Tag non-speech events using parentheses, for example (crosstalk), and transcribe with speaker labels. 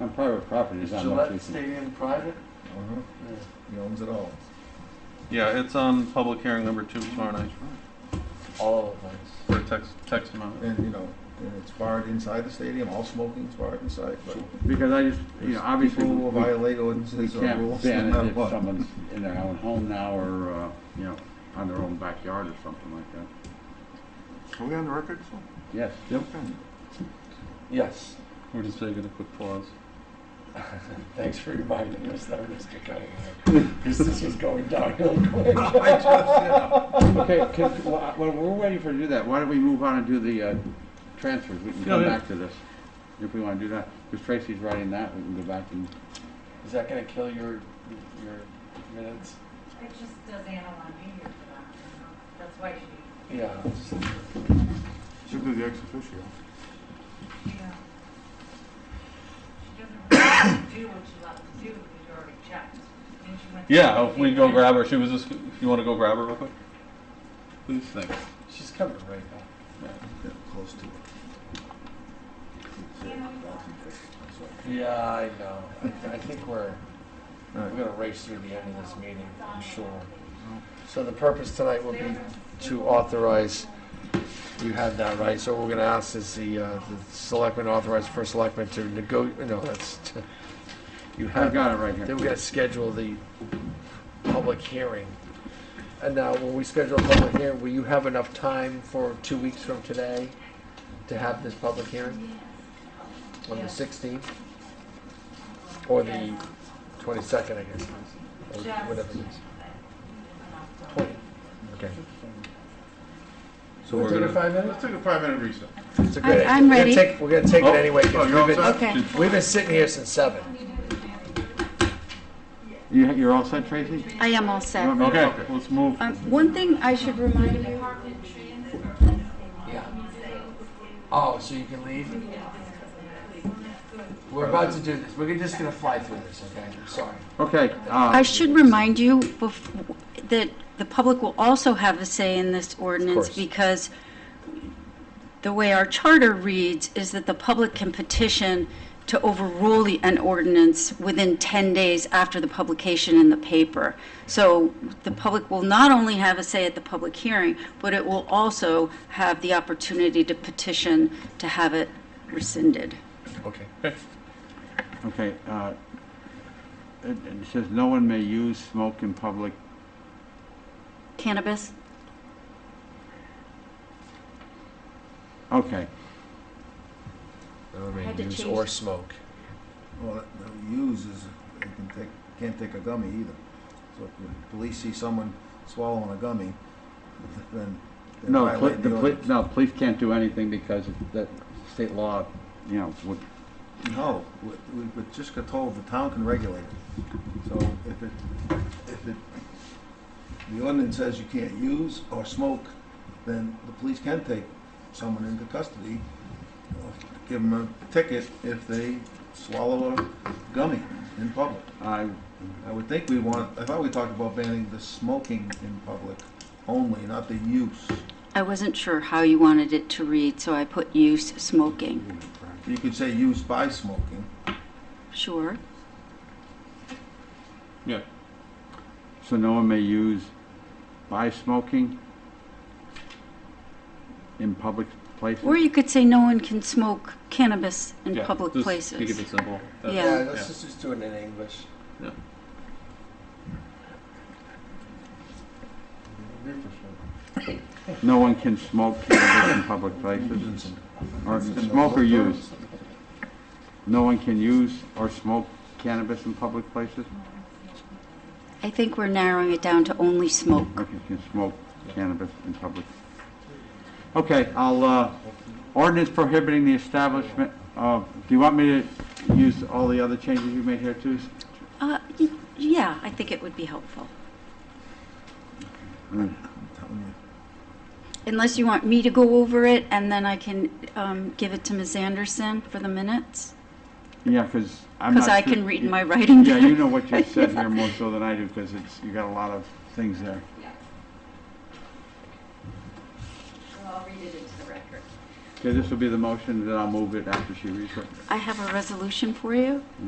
Speaker 1: on private property,
Speaker 2: Is
Speaker 1: there's not much
Speaker 2: Gillette
Speaker 1: we can.
Speaker 2: Stadium private?
Speaker 3: Uh-huh.
Speaker 2: Yeah.
Speaker 3: He owns it all.
Speaker 4: Yeah, it's on public hearing number two tomorrow night
Speaker 2: All of us.
Speaker 4: for a text, text amount.
Speaker 3: And, you know, and it's barred inside the stadium, all smoking is barred inside, but
Speaker 1: Because I just, you know, obviously,
Speaker 3: people will
Speaker 1: we
Speaker 3: violate
Speaker 1: we
Speaker 3: ordinances or
Speaker 1: can't
Speaker 3: rules
Speaker 1: ban
Speaker 3: no
Speaker 1: it
Speaker 3: matter
Speaker 1: if
Speaker 3: what.
Speaker 1: someone's in their own home now or, uh, you know, on their own backyard or something like that.
Speaker 5: Are we on the record? still?
Speaker 1: Yes.
Speaker 5: Okay.
Speaker 2: Yes,
Speaker 4: We're just taking a quick pause.
Speaker 2: thanks for reminding us that, Mr. (laughs) Cunningham, because this was going downhill quick.
Speaker 1: Okay, can- well, I- well, we're waiting for you to do that. Why don't we move on and do the uh, transfers? We can
Speaker 4: Yeah,
Speaker 1: come
Speaker 4: yeah.
Speaker 1: back to this if we want to do that. Because Tracy's writing that, we can go back and,
Speaker 2: Is that gonna kill your, your minutes?
Speaker 6: It just does Anna want me here for that. you know? That's why she,
Speaker 2: Yeah.
Speaker 5: Should do the ex officio.
Speaker 6: you know, she doesn't really do what she loves to do because you already checked. And she went to-
Speaker 4: Yeah, if we go grab her, she was just, if you want to go grab her real quick? Please, thanks.
Speaker 2: She's coming right now.
Speaker 3: Yeah, Close to it.
Speaker 6: Yeah.
Speaker 2: Yeah, I know. I, I think we're,
Speaker 3: All
Speaker 2: we're
Speaker 3: right.
Speaker 2: gonna race through the end of this meeting, I'm sure. So the purpose tonight will be to authorize, you had that right, so what we're gonna ask is the, uh, the selectmen authorize first selectman to nego, no, that's, to- you
Speaker 1: I've
Speaker 2: have that.
Speaker 1: got it right
Speaker 2: Then
Speaker 1: here.
Speaker 2: we gotta schedule the public hearing. And now, when we schedule a public hearing, will you have enough time for two weeks from today to have this public hearing? On the
Speaker 6: Yeah.
Speaker 2: sixteenth? Or the twenty-second, I guess, or
Speaker 6: Just
Speaker 2: whatever it is.
Speaker 6: enough to-
Speaker 2: Twenty, okay.
Speaker 4: So we're
Speaker 2: Take a
Speaker 4: gonna.
Speaker 2: five minute?
Speaker 5: Let's take a five minute recess.
Speaker 2: It's a good idea.
Speaker 7: I'm
Speaker 2: We're gonna
Speaker 7: ready.
Speaker 2: take- We're gonna take
Speaker 4: Oh.
Speaker 2: it anyway, 'cause
Speaker 5: Oh, you're
Speaker 2: we've been,
Speaker 5: all
Speaker 7: Okay.
Speaker 2: we've been sitting here since seven.
Speaker 1: You, you're all set, Tracy?
Speaker 7: I am
Speaker 1: You
Speaker 7: all
Speaker 1: want
Speaker 7: set.
Speaker 1: me to-
Speaker 4: Okay, let's move.
Speaker 7: Um, one thing I should remind you,
Speaker 2: Yeah. Oh, so you can leave? We're about to do this. We're just gonna fly through this, okay? I'm sorry.
Speaker 1: Okay,
Speaker 7: I
Speaker 1: uh,
Speaker 7: should remind you bef- that the public will also have a say in this ordinance
Speaker 2: course.
Speaker 7: because the way our charter reads is that the public can petition to overrule the, an ordinance within 10 days after the publication in the paper. So the public will not only have a say at the public hearing, but it will also have the opportunity to petition to have it rescinded.
Speaker 2: Okay.
Speaker 1: okay, uh, it it says no one may use smoke in public.
Speaker 7: Cannabis?
Speaker 1: Okay,
Speaker 2: No,
Speaker 7: I had to
Speaker 2: use
Speaker 7: change-
Speaker 2: or smoke.
Speaker 3: Well, that- the use is, they can take, can't take a gummy either. So if the police see someone swallowing a gummy, (laughs) then they
Speaker 1: no, poli-
Speaker 3: violate
Speaker 1: the
Speaker 3: the
Speaker 1: police,
Speaker 3: ordinance.
Speaker 1: no, police can't do anything because of that state law, you know, would,
Speaker 3: No, we, we we just got told the town can regulate it. So if it, if it, the ordinance says you can't use or smoke, then the police can take someone into custody, or give them a ticket if they swallow a gummy in public.
Speaker 1: I,
Speaker 3: I would think we want, I thought we talked about banning the smoking in public only, not the use.
Speaker 7: I wasn't sure how you wanted it to read, so I put use smoking.
Speaker 3: You could say use by smoking.
Speaker 7: Sure.
Speaker 4: Yeah,
Speaker 1: so no one may use by smoking in public places?
Speaker 7: Or you could say no one can smoke cannabis in
Speaker 4: yeah.
Speaker 7: public
Speaker 4: just Keep
Speaker 7: places.
Speaker 4: it simple. That's-
Speaker 7: Yeah.
Speaker 2: let's just, just do it in English.
Speaker 4: Yeah.
Speaker 1: No one can smoke cannabis in public places, or smoke or use. No one can use or smoke cannabis in public places?
Speaker 7: I think we're narrowing it down to only smoke.
Speaker 1: Okay, can smoke cannabis in public. Okay, I'll, uh, ordinance prohibiting the establishment of, do you want me to use all the other changes you made here too?
Speaker 7: Uh, y- yeah, I think it would be helpful.
Speaker 3: I'm telling you.
Speaker 7: Unless you want me to go over it and then I can, um, give it to Ms. Anderson for the minutes?
Speaker 1: Yeah, because I'm not
Speaker 7: Because I
Speaker 1: sure-
Speaker 7: can read my writing.
Speaker 1: Yeah, you know what
Speaker 7: (laughs)
Speaker 1: you said here more so than I do, because it's, you got a lot of things there.
Speaker 7: Well, I'll read it into the record.
Speaker 1: Okay, this will be the motion, then I'll move it after she reads it.
Speaker 7: I have a resolution for you.